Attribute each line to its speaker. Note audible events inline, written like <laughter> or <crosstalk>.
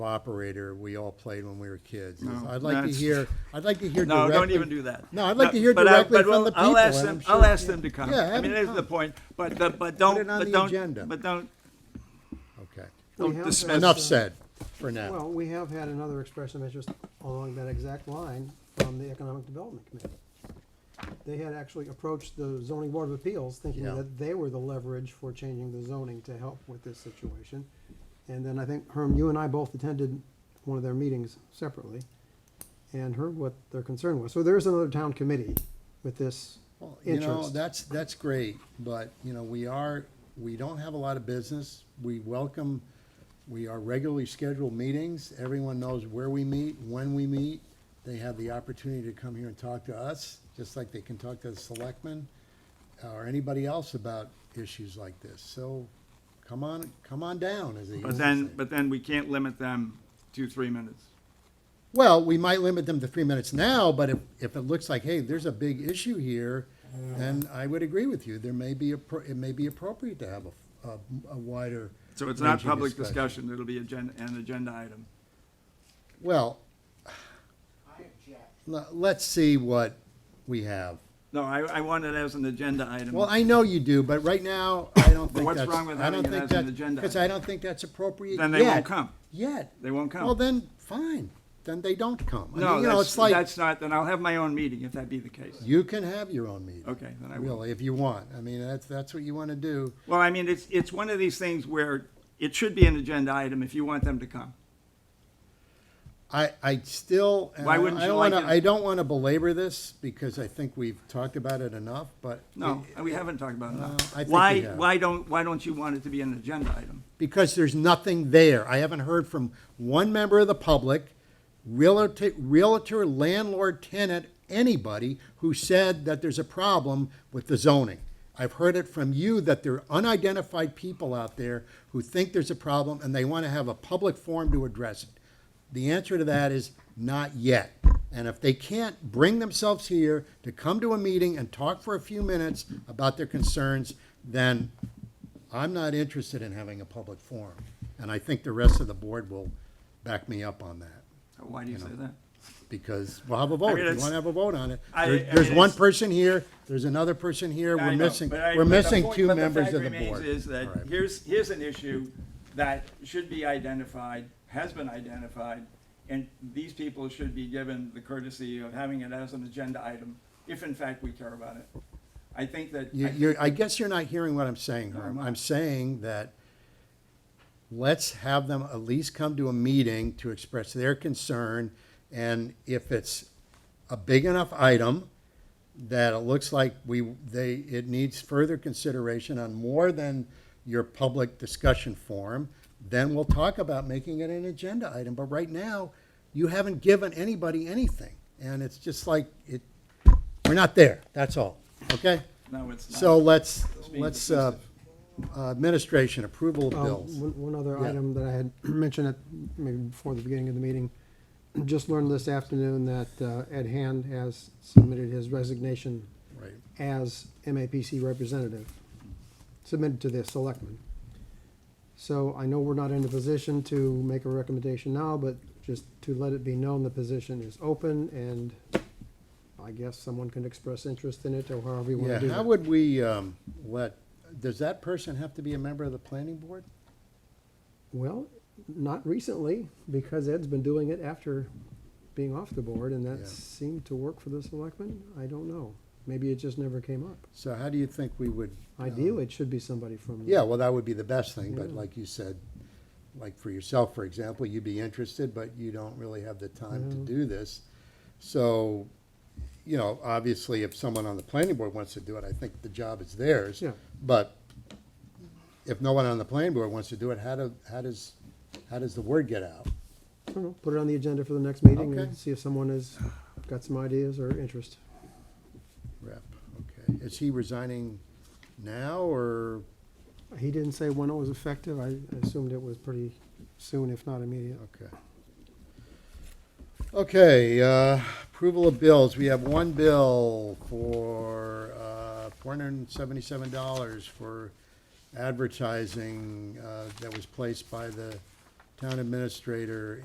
Speaker 1: operator we all played when we were kids.
Speaker 2: No,
Speaker 1: I'd like to
Speaker 2: that's- <laughs>
Speaker 1: hear, I'd like to hear
Speaker 2: No,
Speaker 1: directly.
Speaker 2: don't even do that.
Speaker 1: No, I'd like to hear
Speaker 2: But I-
Speaker 1: directly
Speaker 2: but
Speaker 1: from
Speaker 2: we'll-
Speaker 1: the
Speaker 2: I'll
Speaker 1: people,
Speaker 2: ask
Speaker 1: and
Speaker 2: them-
Speaker 1: I'm
Speaker 2: I'll
Speaker 1: sure-
Speaker 2: ask them to come.
Speaker 1: Yeah, have
Speaker 2: I mean,
Speaker 1: them
Speaker 2: there's
Speaker 1: come.
Speaker 2: the point, but, the- but don't,
Speaker 1: it on
Speaker 2: but
Speaker 1: the agenda.
Speaker 2: don't, but don't,
Speaker 1: Okay.
Speaker 2: don't
Speaker 3: have
Speaker 2: dismiss.
Speaker 3: had-
Speaker 1: Enough said for now.
Speaker 3: Well, we have had another expression of interest along that exact line from the Economic Development Committee. They had actually approached the zoning board of appeals thinking
Speaker 1: Yeah.
Speaker 3: that they were the leverage for changing the zoning to help with this situation. And then I think, Herm, you and I both attended one of their meetings separately and heard what their concern was. So there is another town committee with this
Speaker 1: Well, You know,
Speaker 3: interest.
Speaker 1: that's, that's great, but, you know, we are, we don't have a lot of business. We welcome, we are regularly scheduled meetings. Everyone knows where we meet, when we meet. They have the opportunity to come here and talk to us, just like they can talk to the selectmen or anybody else about issues like this. So come on, come on down, as they usually
Speaker 2: But then,
Speaker 1: say.
Speaker 2: but then we can't limit them to three minutes.
Speaker 1: Well, we might limit them to three minutes now, but if, if it looks like, hey, there's a big issue here, then I would agree with you. There may be, appro- it may be appropriate to have a, a- a wider.
Speaker 2: So it's not
Speaker 1: ranging
Speaker 2: public discussion, it'll be agenda, an agenda item.
Speaker 1: Well, le- let's see what we have.
Speaker 2: No, I, I want it as an agenda item.
Speaker 1: Well, I know you do, but right now, I don't think
Speaker 2: what's
Speaker 1: that's.
Speaker 2: wrong with
Speaker 1: I don't
Speaker 2: having it
Speaker 1: think
Speaker 2: as an
Speaker 1: that-
Speaker 2: agenda
Speaker 1: Because I don't think that's appropriate
Speaker 2: Then they
Speaker 1: yet.
Speaker 2: won't come.
Speaker 1: Yet.
Speaker 2: They won't come.
Speaker 1: Well, then, fine. Then they don't come. I mean,
Speaker 2: No,
Speaker 1: you know,
Speaker 2: that's,
Speaker 1: it's like-
Speaker 2: that's not, then I'll have my own meeting if that be the case.
Speaker 1: You can have your own meeting.
Speaker 2: Okay, then I will.
Speaker 1: Really, if you want. I mean, that's, that's what you want to do.
Speaker 2: Well, I mean, it's, it's one of these things where it should be an agenda item if you want them to come.
Speaker 1: I, I still, and
Speaker 2: Why
Speaker 1: I
Speaker 2: wouldn't
Speaker 1: I
Speaker 2: you
Speaker 1: don't
Speaker 2: like
Speaker 1: want to,
Speaker 2: it?
Speaker 1: I don't want to belabor this because I think we've talked about it enough, but.
Speaker 2: No,
Speaker 1: it-
Speaker 2: we haven't talked about it.
Speaker 1: Uh, I think
Speaker 2: now.
Speaker 1: we
Speaker 2: Why,
Speaker 1: have.
Speaker 2: why don't, why don't you want it to be an agenda item?
Speaker 1: Because there's nothing there. I haven't heard from one member of the public, realtor, realtor, landlord, tenant, anybody who said that there's a problem with the zoning. I've heard it from you that there are unidentified people out there who think there's a problem and they want to have a public forum to address it. The answer to that is not yet. And if they can't bring themselves here to come to a meeting and talk for a few minutes about their concerns, then I'm not interested in having a public forum. And I think the rest of the board will back me up on that,
Speaker 2: Why do you say that?
Speaker 1: because we'll have a vote. If you
Speaker 2: it's-
Speaker 1: want to have a vote on it,
Speaker 2: I-
Speaker 1: there-
Speaker 2: I mean,
Speaker 1: there's one
Speaker 2: it's-
Speaker 1: person here, there's another person here,
Speaker 2: I
Speaker 1: we're
Speaker 2: know,
Speaker 1: missing,
Speaker 2: but I-
Speaker 1: we're
Speaker 2: but the
Speaker 1: missing
Speaker 2: point-
Speaker 1: two
Speaker 2: but the
Speaker 1: members
Speaker 2: fact
Speaker 1: of the
Speaker 2: remains
Speaker 1: board.
Speaker 2: Is
Speaker 1: All right.
Speaker 2: that, here's, here's an issue that should be identified, has been identified, and these people should be given the courtesy of having it as an agenda item, if in fact we care about it. I think that.
Speaker 1: You,
Speaker 2: I-
Speaker 1: you're, I guess you're not hearing what I'm saying,
Speaker 2: I'm
Speaker 1: Herm.
Speaker 2: not.
Speaker 1: I'm saying that let's have them at least come to a meeting to express their concern. And if it's a big enough item that it looks like we, they, it needs further consideration on more than your public discussion forum, then we'll talk about making it an agenda item. But right now, you haven't given anybody anything. And it's just like, it, we're not there, that's all, okay?
Speaker 2: No, it's not.
Speaker 1: So let's,
Speaker 2: being
Speaker 1: let's, uh, uh, administration, approval of
Speaker 3: Um,
Speaker 1: bills.
Speaker 3: One one other
Speaker 1: Yeah.
Speaker 3: item that I had <clears throat> mentioned at, maybe before the beginning of the meeting, just learned this afternoon that uh, Ed Hand has submitted his resignation
Speaker 1: Right.
Speaker 3: as MAPC representative, submitted to the selectmen. So I know we're not in a position to make a recommendation now, but just to let it be known, the position is open and I guess someone can express interest in it or however you want
Speaker 1: Yeah,
Speaker 3: to do
Speaker 1: how
Speaker 3: that.
Speaker 1: would we, um, let, does that person have to be a member of the planning board?
Speaker 3: Well, not recently, because Ed's been doing it after being off the board and
Speaker 1: Yeah.
Speaker 3: that seemed to work for the selectmen. I don't know. Maybe it just never came up.
Speaker 1: So how do you think we would? um,
Speaker 3: Ideally, it should be somebody from.
Speaker 1: Yeah, well, that would be the best thing, but
Speaker 3: Yeah.
Speaker 1: like you said, like for yourself, for example, you'd be interested, but you don't really have the time to
Speaker 3: No.
Speaker 1: do this. So, you know, obviously, if someone on the planning board wants to do it, I think the job is theirs.
Speaker 3: Yeah.
Speaker 1: But if no one on the planning board wants to do it, how do, how does, how does the word get out?
Speaker 3: I don't know, put it on the agenda for the next meeting
Speaker 1: Okay.
Speaker 3: and see if someone has got some ideas or interest.
Speaker 1: Rep, okay. Is he resigning now or,
Speaker 3: He didn't say when it was effective. I assumed it was pretty soon, if not immediate.
Speaker 1: okay. Okay, uh, approval of bills. We have one bill for, uh, four hundred and seventy-seven dollars for advertising, uh, that was placed by the town administrator